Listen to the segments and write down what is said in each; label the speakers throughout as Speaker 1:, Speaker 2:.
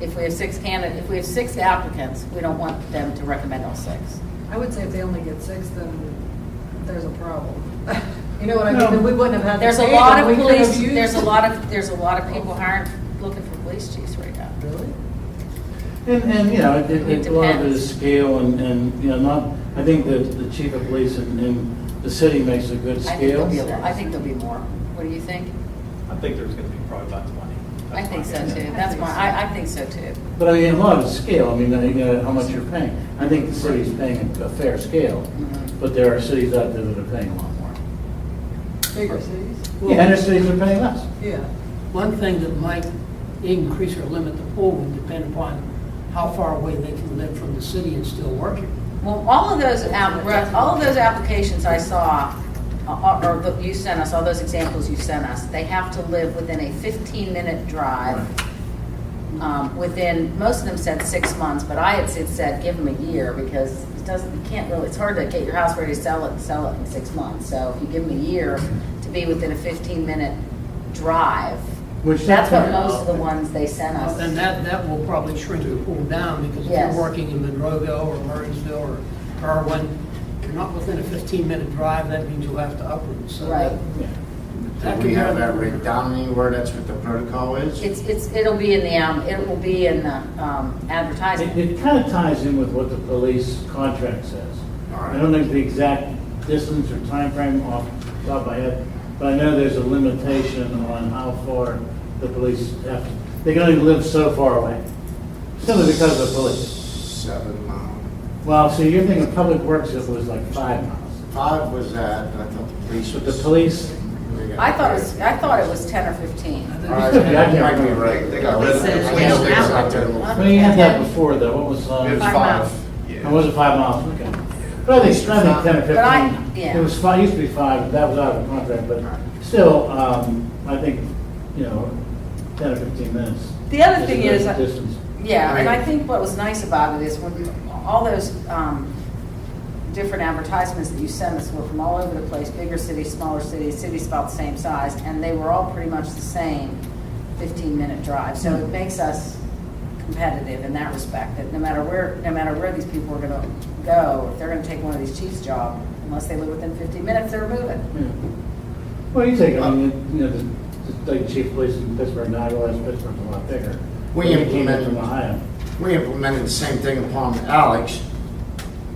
Speaker 1: if we have six candidate, if we have six applicants, we don't want them to recommend all six.
Speaker 2: I would say if they only get six, then there's a problem. You know what I mean? Then we wouldn't have had.
Speaker 1: There's a
Speaker 2: the
Speaker 1: lot
Speaker 2: data, we
Speaker 1: of
Speaker 2: could have
Speaker 1: police,
Speaker 2: used-
Speaker 1: there's a lot of, there's a lot of people who aren't looking for police chiefs right now.
Speaker 2: Really?
Speaker 3: And, and, you know, it,
Speaker 1: It
Speaker 3: it, a lot of it
Speaker 1: depends.
Speaker 3: is scale and, and, you know, not, I think that the chief of police in, in the city makes a good
Speaker 1: I think
Speaker 3: scale.
Speaker 1: there'll be, a lot- I think there'll be more. What do you think?
Speaker 4: I think there's going to be probably about 20.
Speaker 1: I think so too.
Speaker 2: I
Speaker 1: That's
Speaker 2: think
Speaker 1: my,
Speaker 2: so.
Speaker 1: I, I think so too.
Speaker 3: But I mean, a lot of it's scale, I mean, uh, you know, how much you're paying. I think the city's paying a fair scale,
Speaker 1: Mhm.
Speaker 3: but there are cities out there that are paying a lot more.
Speaker 2: Bigger cities?
Speaker 3: Yeah, and there's cities that are paying less.
Speaker 2: Yeah.
Speaker 5: One thing that might increase or limit the pool would depend upon how far away they can live from the city and still work here.
Speaker 1: Well, all of those, app- all of those applications I saw, uh, or that you sent us, all those examples you sent us, they have to live within a 15-minute drive. um, Within, most of them said six months, but I had said- said, give them a year, because it doesn't, you can't really, it's hard to get your house ready to sell it, and sell it in six months. So if you give them a year to be within a 15-minute drive,
Speaker 3: Which-
Speaker 1: that's what most of the ones they sent us.
Speaker 5: And that, that will probably shrink the pool down because if
Speaker 1: Yes.
Speaker 5: you're working in Monroeville or Murraysville or Irwin, you're not within a 15-minute drive, that means you'll have to uproot. So that-
Speaker 1: Right.
Speaker 3: Yeah.
Speaker 5: That
Speaker 6: Do we
Speaker 5: could
Speaker 6: have
Speaker 5: be-
Speaker 6: that written down anywhere, that's what the protocol is?
Speaker 1: It's, it's, it'll be in the, um, it will be in the um,
Speaker 3: It,
Speaker 1: advertisement.
Speaker 3: it kind of ties in with what the police contract says.
Speaker 6: All right.
Speaker 3: I don't know the exact distance or time frame off the top of my head, but I know there's a limitation on how far the police have, to- they can only live so far away, simply because of the police.
Speaker 6: Seven um, mile.
Speaker 3: Well, so you're thinking Public Works, it was like five miles,
Speaker 6: Five was that, and I thought the police
Speaker 3: but
Speaker 6: was.
Speaker 3: the police,
Speaker 6: They got-
Speaker 1: I thought it was, I thought it was 10 or 15.
Speaker 6: All right, that might be right. They got rid of the
Speaker 2: Police said-
Speaker 6: police sticks out there.
Speaker 3: I mean, you had that before though, what was,
Speaker 6: It was
Speaker 3: uh,
Speaker 1: Five
Speaker 6: five.
Speaker 1: miles.
Speaker 3: it was it five miles, okay. But I think, I think ten
Speaker 1: But I-
Speaker 3: or fifteen,
Speaker 1: yeah.
Speaker 3: it was five, used to be five, but that was out of the contract, but still, um, I think, you know, ten or fifteen minutes.
Speaker 1: The other
Speaker 3: a
Speaker 1: thing
Speaker 3: good
Speaker 1: is, uh, I-
Speaker 3: Distance.
Speaker 1: Yeah, and I
Speaker 6: Right.
Speaker 1: think what was nice about it is when, all those um, different advertisements that you sent us were from all over the place, bigger cities, smaller cities, cities about the same size, and they were all pretty much the same 15-minute drive. So it makes us competitive in that respect, that no matter where, no matter where these people are going to go, if they're going to take one of these chief's job, unless they live within 15 minutes, they're moving.
Speaker 3: Yeah. Well, you take, I mean, you know, the, the like chief of police in Pittsburgh, and I realize Pittsburgh's a lot bigger. But
Speaker 6: We
Speaker 3: he came
Speaker 6: implemented-
Speaker 3: From Ohio.
Speaker 6: We implemented the same thing upon Alex,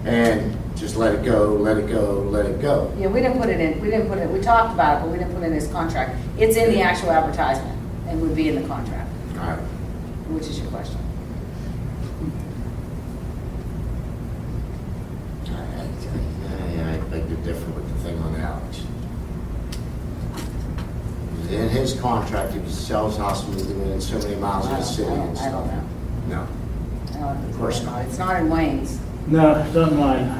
Speaker 6: and just let it go, let it go, let it go.
Speaker 1: Yeah, we didn't put it in, we didn't put it, we talked about it, but we didn't put it in his contract. It's in the actual advertisement and would be in the contract,
Speaker 6: All right.
Speaker 1: which is your question.
Speaker 6: I, I, I beg to differ with the thing on Alex. In his contract, if he sells house within so many miles of the city
Speaker 1: I don't-
Speaker 6: and
Speaker 1: I don't
Speaker 6: stuff.
Speaker 1: know.
Speaker 6: No.
Speaker 1: I don't-
Speaker 6: Of course not.
Speaker 1: Uh, It's not in Wayne's,
Speaker 3: No, it's not mine.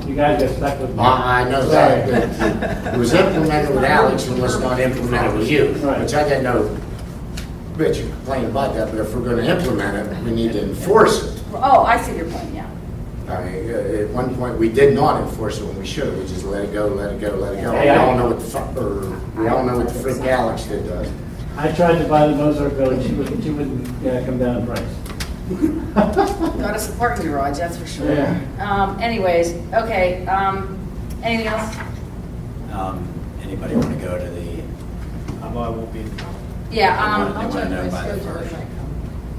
Speaker 3: You
Speaker 1: so.
Speaker 3: guys got stuck with me.
Speaker 6: I, I know
Speaker 3: Sorry.
Speaker 6: that, but it was implemented with Alex and was not implemented with you,
Speaker 3: Right.
Speaker 6: which I didn't know. Rich complained about that, but if we're gonna implement it, we need to enforce it.
Speaker 1: Oh, I see your point, yeah.
Speaker 6: I mean, uh, at one point, we did not enforce it when we should have, we just let it go, let it go, let it go. We
Speaker 3: Hey, I-
Speaker 6: all know what the fuck, or, we all know what the freak Alex did to us.
Speaker 3: I tried to buy the Mozart building, she wouldn't, she wouldn't, yeah, come down in price.
Speaker 1: Got us a parking garage, that's for sure.
Speaker 3: Yeah.
Speaker 1: Um, anyways, okay, um, anything else?
Speaker 7: Um, Anybody want to go to the,
Speaker 4: Although I won't be in town.
Speaker 1: Yeah, um,
Speaker 7: I
Speaker 2: I'll
Speaker 7: wanna
Speaker 2: check
Speaker 7: know
Speaker 2: my
Speaker 7: by the
Speaker 2: schedule when I
Speaker 7: first.
Speaker 2: come.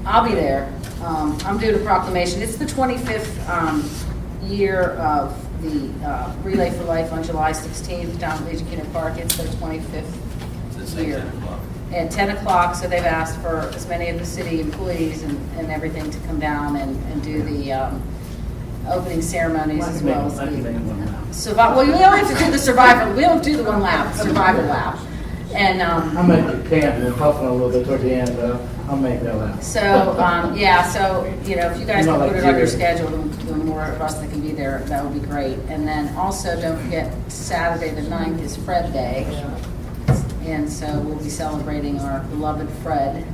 Speaker 1: I'll be there. Um, I'm doing a proclamation. It's the 25th um, year of the uh, Relay for Life on July 16th down at Legion Kennedy Park. It's their 25th
Speaker 7: it's like
Speaker 1: Here.
Speaker 7: 10 o'clock.
Speaker 1: at 10 o'clock, so they've asked for as many of the city employees and and everything to come down and and do the um, opening ceremonies
Speaker 3: I
Speaker 1: as
Speaker 3: can make-
Speaker 1: well as
Speaker 3: I can make one now.
Speaker 1: the survival. Well, we only have to do the survival, we don't do the one lap, survival lap. And, um,
Speaker 3: I'm at the camp, and puffing a little bit toward the end, but I'll make that last.
Speaker 1: So, um, yeah, so, you know, if you guys
Speaker 3: Not
Speaker 1: can put
Speaker 3: like
Speaker 1: it on your
Speaker 3: you.
Speaker 1: schedule, the the more of us that can be there, that would be great. And then also, don't forget, Saturday the 9th is Fred Day. And so we'll be celebrating our beloved Fred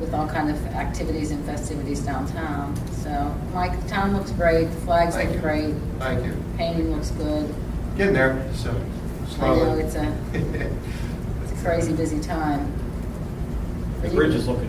Speaker 1: with all kind of activities and festivities downtown. So, Mike, the town looks great, the flags
Speaker 8: Thank
Speaker 1: look
Speaker 8: you.
Speaker 1: great,
Speaker 8: Thank you.
Speaker 1: painting looks good.
Speaker 8: Getting there, so
Speaker 1: I know
Speaker 8: slowly.
Speaker 1: it's a, it's a crazy busy time.
Speaker 4: The bridge is looking